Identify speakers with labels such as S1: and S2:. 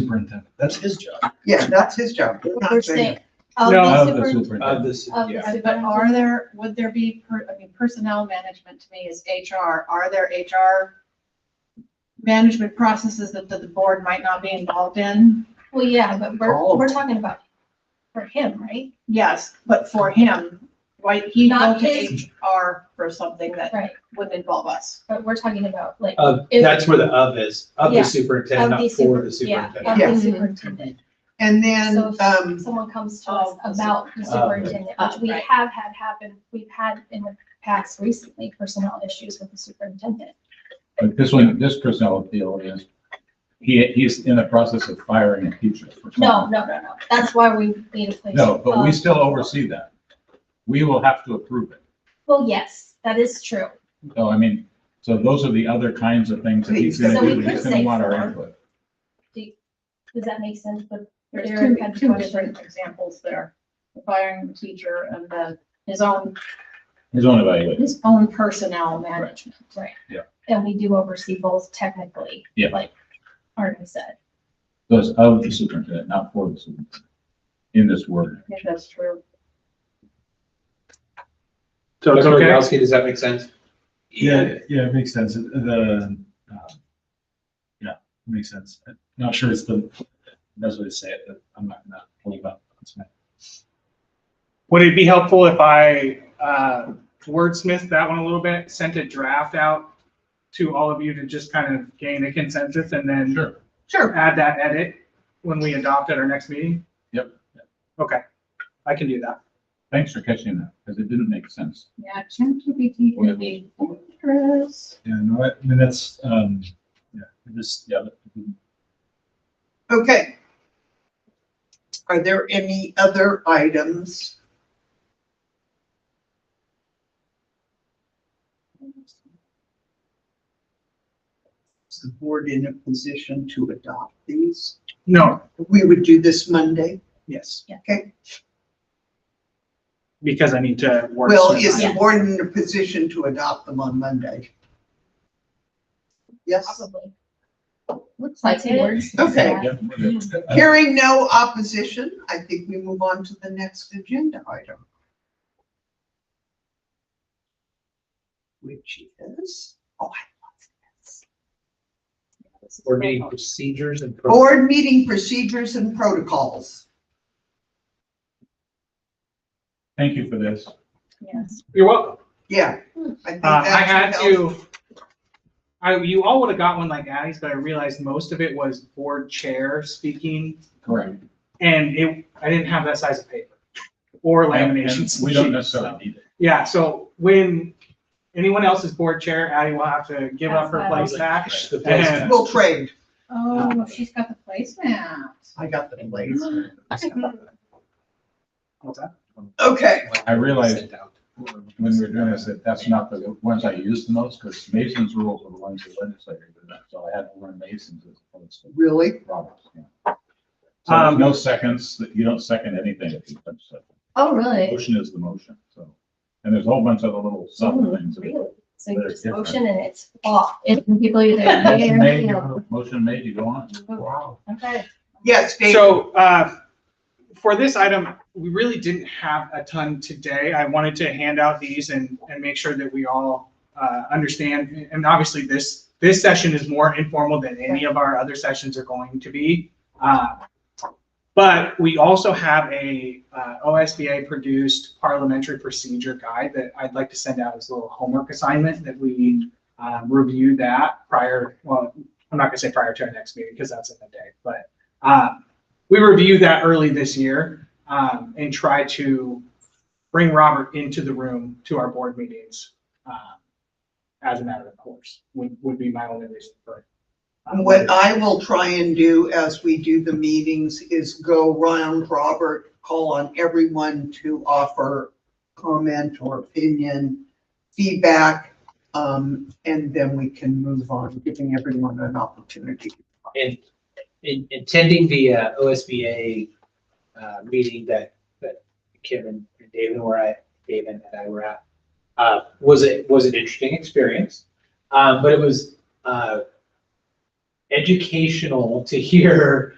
S1: superintendent. That's his job.
S2: Yeah, that's his job. We're
S3: We're
S2: not saying,
S3: saying,
S4: Oh,
S3: of the
S1: Of the
S3: super,
S5: Of
S1: superintendent.
S5: this,
S3: of the
S5: yeah.
S3: super- but are there, would there be, per- I mean, personnel management to me is HR, are there HR management processes that, that the board might not be involved in?
S4: Well, yeah, but
S2: All
S4: we're,
S2: of
S4: we're
S2: them.
S4: talking about for him, right?
S3: Yes, but for him, why, he'd go
S4: Not
S3: to
S4: his-
S3: HR for something that
S4: Right,
S3: would involve us.
S4: but we're talking about like
S1: Uh,
S5: Of,
S4: Is-
S5: that's where the of is, of
S4: Yeah.
S5: the
S4: of
S5: superintendent,
S4: the
S5: not for
S4: super,
S5: the
S4: yeah,
S5: superintendent.
S4: of
S2: Yeah.
S4: the superintendent.
S2: and then,
S4: So if
S2: um,
S4: someone comes to us
S3: Oh,
S4: about the
S5: super-
S4: superintendent,
S3: uh,
S4: which we
S3: right.
S4: have had happen, we've had in the past recently personnel issues with the superintendent.
S1: But this one, this personnel appeal is, he, he's in the process of firing a teacher. for something.
S4: No, no, no, no, that's why we need a place.
S1: No, but we
S4: Um,
S1: still oversee that. We will have to approve it.
S4: Well, yes, that is true.
S1: So I mean, so those are the other kinds of things that he's gonna
S2: So we
S1: do.
S2: could
S1: He's gonna
S4: say
S1: want our
S4: four.
S1: input.
S4: Does that make sense? But
S3: There's
S4: Eric
S3: two,
S4: had the
S3: two
S4: question.
S3: different examples there. The Firing the teacher and the, his own,
S1: His own evaluation.
S3: his own personnel management.
S4: Right.
S1: Yeah.
S4: And we do oversee both technically.
S1: Yeah.
S4: Like Arden said.
S1: So it's of the superintendent, not for the superintendent. In this word.
S3: I think that's true.
S5: So
S6: That's
S5: Tony
S6: okay.
S5: Yagowski, does that make sense?
S6: Yeah, yeah, it makes sense. The, uh, yeah, it makes sense. I'm Not sure it's the best way to say it, but I'm not gonna hold up. That's fine.
S7: Would it be helpful if I uh, wordsmithed that one a little bit, sent a draft out to all of you to just kind of gain a consensus and then
S1: Sure.
S3: Sure.
S7: add that edit when we adopt at our next meeting?
S1: Yep.
S7: Okay, I can do that.
S1: Thanks for catching that, because it didn't make sense.
S3: Yeah, ChatGPT can be dangerous.
S6: Yeah, no, I I mean, that's, um, yeah, it just, yeah. but-
S2: okay. Are there any other items? Is the board in a position to adopt these?
S7: No,
S2: We would do this Monday.
S7: yes.
S4: Yeah.
S2: Okay.
S7: Because I need to work.
S2: Well,
S7: some
S2: is the
S7: time.
S2: board in a position to adopt them on Monday? Yes?
S4: Probably.
S3: Looks
S4: like it.
S2: Okay.
S1: Yeah, we're good.
S2: Hearing no opposition, I think we move on to the next agenda item. Which is
S5: Or meeting procedures and. protocols.
S2: board meeting procedures and protocols.
S1: Thank you for this.
S3: Yes.
S7: You're welcome.
S2: Yeah. I think
S7: Uh,
S2: that
S7: I had
S2: should help.
S7: to, I, you all would have got one like Addie's, but I realized most of it was board chair speaking
S1: Correct.
S7: and it, I didn't have that size of paper or
S1: And- and
S7: laminations.
S1: We don't necessarily need it.
S7: Yeah, so when anyone else is board chair, Addie will have to give up her
S4: That's
S7: place back.
S5: The place
S7: And
S2: We'll trade.
S3: Oh, she's got the placemat.
S2: I got the place.
S7: What's that?
S2: Okay,
S1: I realized-
S5: Sent out.
S1: when we were doing this, that that's not the ones I use the most, because Mason's rules are the ones that legislators do that, so I had to learn Mason's as opposed to
S2: really?
S1: Robert's. yeah. So there's
S7: Um,
S1: no seconds, that you don't second anything if you punch second.
S4: Oh, really?
S1: Motion is the motion, so, and there's a whole bunch of other little subtle things. that-
S4: Really? So
S1: But
S4: you
S1: it's
S4: just
S1: different.
S4: motion and it's off. It's people either. yay
S1: Motion
S4: or
S1: made,
S4: no.
S1: you- motion made, you go on.
S2: Wow.
S4: "Oh, Okay.
S2: Yes, Dave.
S7: So, uh, for this item, we really didn't have a ton today. I wanted to hand out these and, and make sure that we all, uh, understand. And obviously, this, this session is more informal than any of our other sessions are going to be. Uh, But we also have a, uh, OSBA-produced parliamentary procedure guide that I'd like to send out as a little homework assignment that we, um, review that prior, well, I'm not gonna say prior to our next meeting, because that's in the day, but uh, we reviewed that early this year um, and try to bring Robert into the room to our board meetings uh, as a matter of course, would, would be my only reason for it. Um,
S2: What uh, I will try and do as we do the meetings is go round Robert, call on everyone to offer comment or opinion, feedback, um, and then we can move on, giving everyone an opportunity.
S5: And in attending the uh, OSBA uh, meeting that, that Kim and and David were at, David and I were at, uh, was it, was an interesting experience. Um, But it was uh, educational to hear